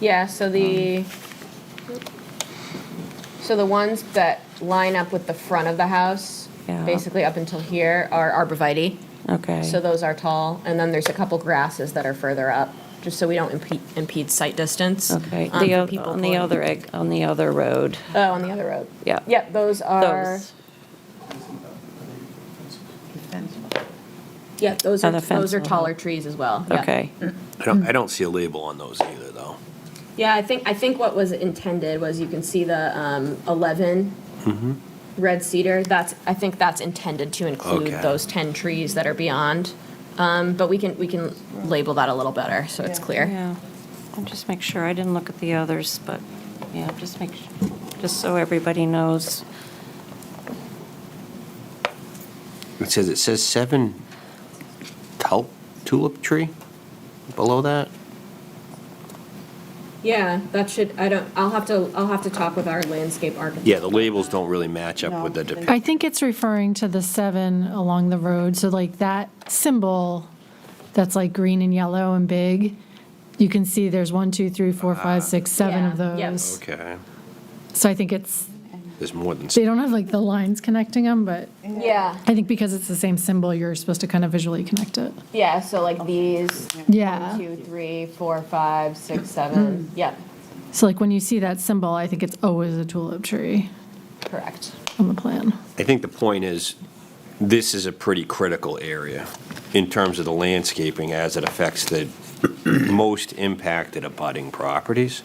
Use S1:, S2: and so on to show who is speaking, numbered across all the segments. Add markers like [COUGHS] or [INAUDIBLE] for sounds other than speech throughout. S1: Yeah, so
S2: Um.
S1: the, so the ones that line up with the front of the house,
S2: Yeah.
S1: basically up until here, are arborvitae.
S2: Okay.
S1: So those are tall, and then there's a couple grasses that are further up, just so we don't impede, impede sight distance.
S2: Okay,
S1: um,
S2: the,
S1: for
S2: oth-
S1: people
S2: on the
S1: pulling-
S2: other, egg- on the other road,
S1: Oh, on the other road.
S2: Yeah.
S1: Yep, those are,
S2: those.
S1: yeah, those
S2: On
S1: are,
S2: the fence
S1: those are
S2: level.
S1: taller trees as well. yeah.
S2: Okay,
S3: I don't, I don't see a label on those either, though.
S1: Yeah, I think, I think what was intended was you can see the um, 11
S3: Mm-hmm.
S1: red cedar. That's, I think that's intended to include
S3: Okay.
S1: those 10 trees that are beyond. Um, But we can, we can label that a little better, so it's clear.
S2: yeah. I'll just make sure, I didn't look at the others, but, yeah, just make, su- just so everybody knows.
S3: It says, it says seven tulip, tulip tree below that?
S1: Yeah, that should, I don't, I'll have to, I'll have to talk with our landscape architect.
S3: Yeah, the labels don't really match up with the depiction.
S4: I think it's referring to the seven along the road, so like that symbol that's like green and yellow and big, you can see there's one, two, three, four, five, six, seven of
S1: Uh-huh. Yeah, yep.
S4: those.
S3: Okay,
S4: So I think it's,
S3: there's more than,
S4: they don't have like the lines connecting them, but
S1: Yeah,
S4: I think because it's the same symbol, you're supposed to kind of visually connect it.
S1: yeah, so like these,
S4: Yeah.
S1: two, three, four, five, six,
S2: Hmm.
S1: seven. Yep,
S4: So like when you see that symbol, I think it's always a tulip tree
S1: correct.
S4: on the plan.
S3: I think the point is, this is a pretty critical area in terms of the landscaping as it affects the [COUGHS] most impacted abutting properties.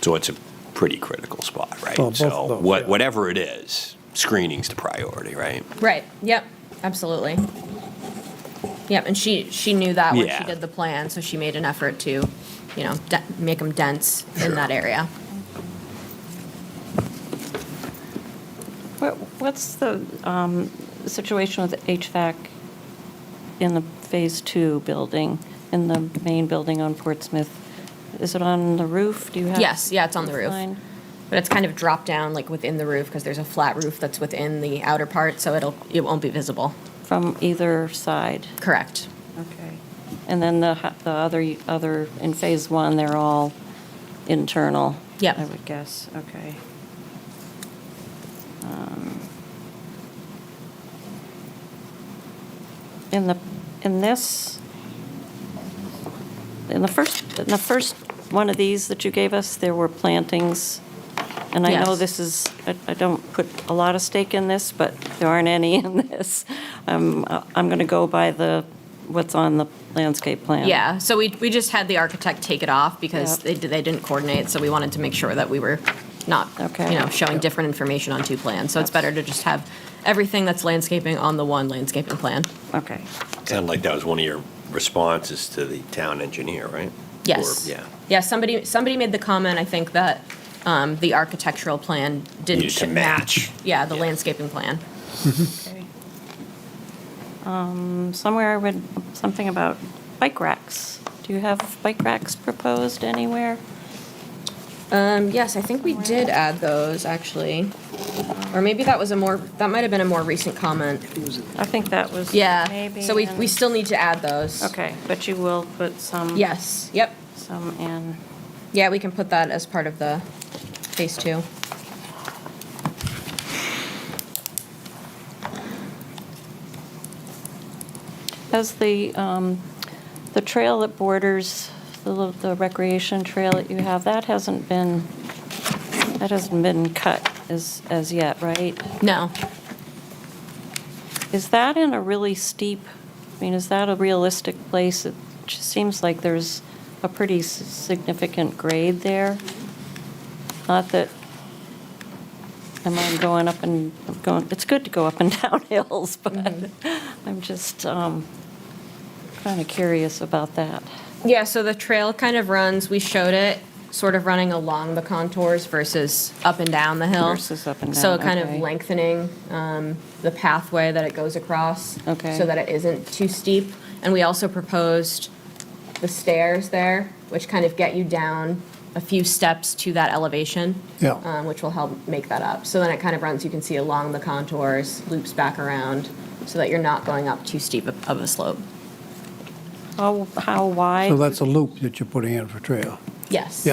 S3: So it's a pretty critical spot, right?
S5: Well, both of
S3: So
S5: those,
S3: what,
S5: yeah.
S3: whatever it is, screening's the priority, right?
S1: Right, yep, absolutely. Yep, and she, she knew that when she
S3: Yeah.
S1: did the plan, so she made an effort to, you know, de- make them dense in that area.
S2: What, what's the um, situation with HVAC in the Phase Two building, in the main building on Portsmouth? Is it on the roof? Do you have?
S1: Yes, yeah, it's on the roof.
S2: Fine.
S1: But it's kind of dropped down, like within the roof, because there's a flat roof that's within the outer part, so it'll, it won't be visible.
S2: From either side?
S1: Correct.
S2: Okay. And then the, ho- the other, other, in Phase One, they're all internal?
S1: Yep.
S2: I would guess, okay. Um, In the, in this, in the first, in the first one of these that you gave us, there were plantings. And I know
S1: Yes.
S2: this is, I- I don't put a lot of stake in this, but there aren't any in this. Um, I- I'm going to go by the, what's on the landscape plan.
S1: Yeah, so we, we just had the architect take it off because
S2: Yep.
S1: they, did- they didn't coordinate, so we wanted to make sure that we were not, you
S2: Okay.
S1: know, showing different information on two plans. So it's better to just have everything that's landscaping on the one landscaping plan.
S2: Okay.
S3: Sounded like that was one of your responses to the town engineer, right?
S1: Yes.
S3: Or- Yeah.
S1: Yeah, somebody, somebody made the comment, I think, that um, the architectural plan didn't.
S3: Needed to
S1: sh-
S3: match.
S1: Yeah, the
S3: Yeah.
S1: landscaping plan.
S2: Um, Somewhere I read something about bike racks. Do you have bike racks proposed anywhere?
S1: Um, Yes, I think we did add those, actually. Or maybe that was a more, that might have been a more recent comment.
S2: I think that was.
S1: Yeah,
S2: maybe
S1: so we,
S2: in-
S1: we still need to add those.
S2: Okay, but you will put some.
S1: Yes, yep.
S2: Some in.
S1: Yeah, we can put that as part of the phase two.
S2: Has the, um, the trail that borders, the lo- the recreation trail that you have, that hasn't been, that hasn't been cut as, as yet, right?
S1: No,
S2: Is that in a really steep, I mean, is that a realistic place? It just seems like there's a pretty s- significant grade there. Not that, am I going up and, going, it's good to go up and [LAUGHS] down hills, but I'm just kind of curious about that.
S1: Yeah, so the trail kind of runs, we showed it, sort of running along the contours versus up and down the hill.
S2: Versus up and
S1: So
S2: down,
S1: kind of
S2: okay.
S1: lengthening um, the pathway that it goes across.
S2: Okay.
S1: So that it isn't too steep. And we also proposed the stairs there, which kind of get you down a few steps to that elevation.
S5: Yeah.
S1: um, Which will help make that up. So then it kind of runs, you can see along the contours, loops back around, so that you're not going up too steep of of a slope.
S2: How, how wide?
S5: So that's a loop that you're putting in for trail.
S1: Yes.